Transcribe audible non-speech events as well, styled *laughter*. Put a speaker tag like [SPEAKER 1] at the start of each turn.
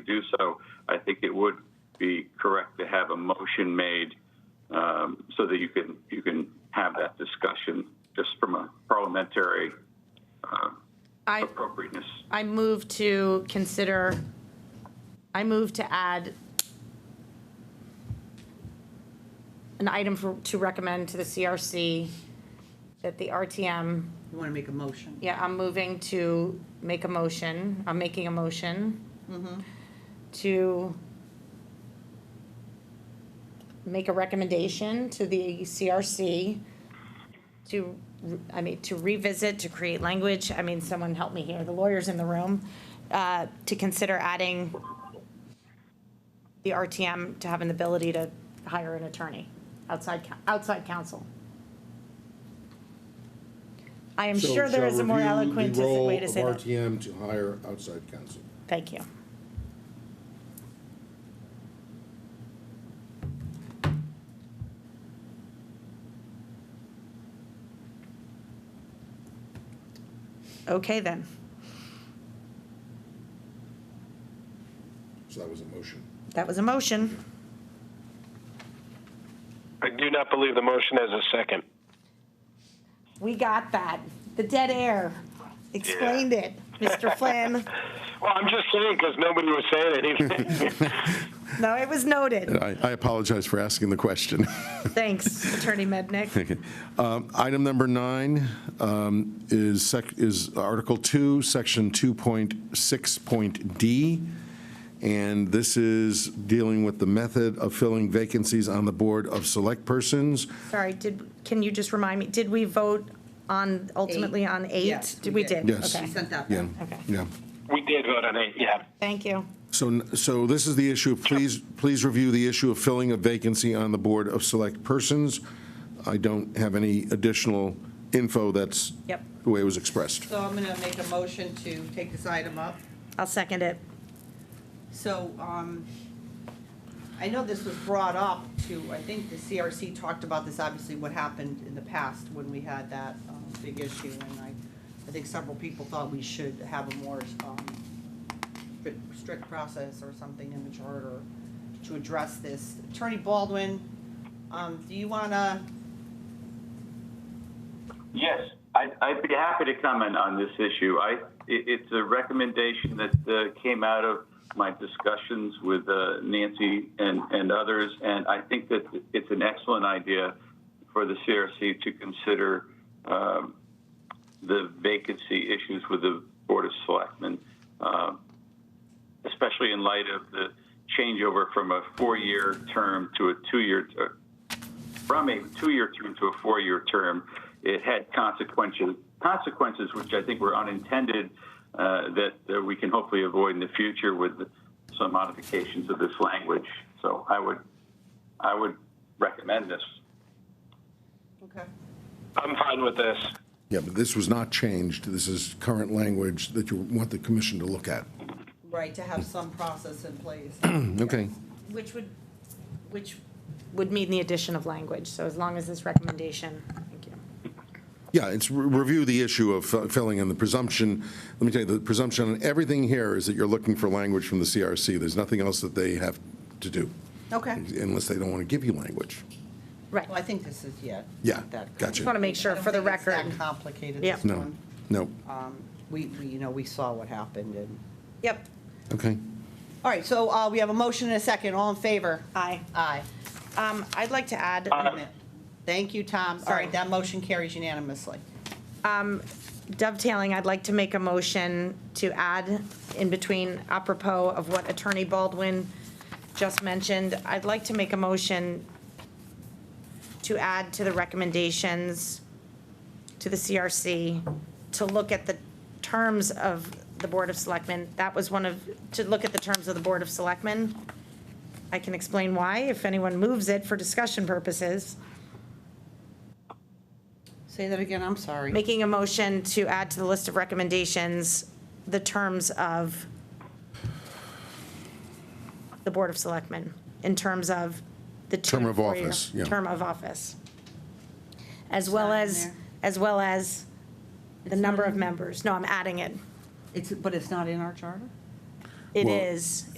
[SPEAKER 1] do so, I think it would be correct to have a motion made um, so that you can, you can have that discussion just from a parliamentary uh,
[SPEAKER 2] I,
[SPEAKER 1] appropriateness.
[SPEAKER 2] I move to consider, I move to add an item for, to recommend to the CRC that the RTM,
[SPEAKER 3] You want to make a motion?
[SPEAKER 2] yeah, I'm moving to make a motion, I'm making a motion to make a recommendation to the CRC to, re- I mean, to revisit, to create language, I mean, someone help me here, the lawyer's in the room, uh, to consider adding the RTM to having the ability to hire an attorney, outside, coun- outside counsel. I am
[SPEAKER 4] So
[SPEAKER 2] sure there
[SPEAKER 4] shall
[SPEAKER 2] is a more
[SPEAKER 4] review the
[SPEAKER 2] eloquent
[SPEAKER 4] role
[SPEAKER 2] way to say
[SPEAKER 4] of
[SPEAKER 2] that.
[SPEAKER 4] RTM to hire outside counsel.
[SPEAKER 2] Thank you. Okay, then.
[SPEAKER 4] So that was a motion.
[SPEAKER 2] That was a motion.
[SPEAKER 5] I do not believe the motion has a second.
[SPEAKER 2] We got that. The dead air. Explained it, Mr. Flynn.
[SPEAKER 5] Well, I'm just saying because nobody was saying anything.
[SPEAKER 2] No, it was noted.
[SPEAKER 6] I I apologize for asking the question. *laughs*
[SPEAKER 2] Thanks, Attorney Mednick.
[SPEAKER 6] Um, Item number nine um, is sec- is Article 2, Section 2.6.d, and this is dealing with the method of filling vacancies on the Board of Select Persons.
[SPEAKER 2] Sorry, did, can you just remind me, did we vote on, ultimately on eight?
[SPEAKER 3] Yes,
[SPEAKER 2] Did
[SPEAKER 3] we
[SPEAKER 2] We
[SPEAKER 3] did.
[SPEAKER 2] did?
[SPEAKER 6] Yes.
[SPEAKER 2] Okay.
[SPEAKER 3] Sent out.
[SPEAKER 6] Yeah,
[SPEAKER 2] Okay.
[SPEAKER 6] yeah.
[SPEAKER 5] we did vote on it, yeah.
[SPEAKER 2] Thank you.
[SPEAKER 6] So, so this is the issue, please, please review the issue of filling a vacancy on the Board of Select Persons. I don't have any additional info, that's
[SPEAKER 2] Yep.
[SPEAKER 6] the way it was expressed.
[SPEAKER 3] So I'm going to make a motion to take this item up.
[SPEAKER 2] I'll second it.
[SPEAKER 3] So um, I know this was brought up to, I think the CRC talked about this, obviously what happened in the past when we had that um, big issue. And I, I think several people thought we should have a more um, strict- strict process or something in the charter to address this. Attorney Baldwin, um, do you want to,
[SPEAKER 1] Yes, I'd, I'd be happy to comment on this issue. I, it, it's a recommendation that uh, came out of my discussions with uh, Nancy and, and others, and I think that it's an excellent idea for the CRC to consider um, the vacancy issues with the Board of Selectmen, um, especially in light of the changeover from a four-year term to a two-year, uh, ter- from a two-year term to a four-year term, it had consequences, consequences which I think were unintended uh, that, that we can hopefully avoid in the future with some modifications of this language. So I would, I would recommend this.
[SPEAKER 3] okay.
[SPEAKER 5] I'm fine with this.
[SPEAKER 6] Yeah, but this was not changed. This is current language that you want the commission to look at.
[SPEAKER 3] Right, to have some process in place.
[SPEAKER 6] Okay.
[SPEAKER 2] Which would, which would mean the addition of language, so as long as this recommendation, thank you.
[SPEAKER 6] Yeah, it's re- review the issue of fi- filling in the presumption. Let me tell you, the presumption on everything here is that you're looking for language from the CRC. There's nothing else that they have to do,
[SPEAKER 3] Okay.
[SPEAKER 6] unless they don't want to give you language.
[SPEAKER 2] Right,
[SPEAKER 3] Well, I think this is, yeah.
[SPEAKER 6] Yeah,
[SPEAKER 3] that-
[SPEAKER 6] gotcha.
[SPEAKER 2] just want to make sure for the
[SPEAKER 3] I
[SPEAKER 2] record.
[SPEAKER 3] don't think it's that complicated,
[SPEAKER 2] Yeah.
[SPEAKER 3] this
[SPEAKER 6] No,
[SPEAKER 3] one. Um,
[SPEAKER 6] no.
[SPEAKER 3] We, we, you know, we saw what happened and,
[SPEAKER 2] Yep,
[SPEAKER 6] Okay.
[SPEAKER 3] all right, so uh, we have a motion and a second, all in favor?
[SPEAKER 2] aye.
[SPEAKER 3] Aye.
[SPEAKER 2] Um, I'd like to add,
[SPEAKER 3] Thank you, Tom. All
[SPEAKER 2] Sorry.
[SPEAKER 3] right, that motion carries unanimously.
[SPEAKER 2] dovetailing, I'd like to make a motion to add in between apropos of what Attorney Baldwin just mentioned, I'd like to make a motion to add to the recommendations to the CRC to look at the terms of the Board of Selectmen. That was one of, to look at the terms of the Board of Selectmen. I can explain why if anyone moves it for discussion purposes.
[SPEAKER 3] Say that again, I'm sorry.
[SPEAKER 2] making a motion to add to the list of recommendations the terms of the Board of Selectmen, in terms of the two
[SPEAKER 6] Term of
[SPEAKER 2] to four-year
[SPEAKER 6] office, yeah.
[SPEAKER 2] Term of office. As well
[SPEAKER 3] not in
[SPEAKER 2] as,
[SPEAKER 3] there.
[SPEAKER 2] as well as the number of members. No, I'm adding it.
[SPEAKER 3] It's, but it's not in our charter?
[SPEAKER 2] It
[SPEAKER 6] Well-
[SPEAKER 2] is.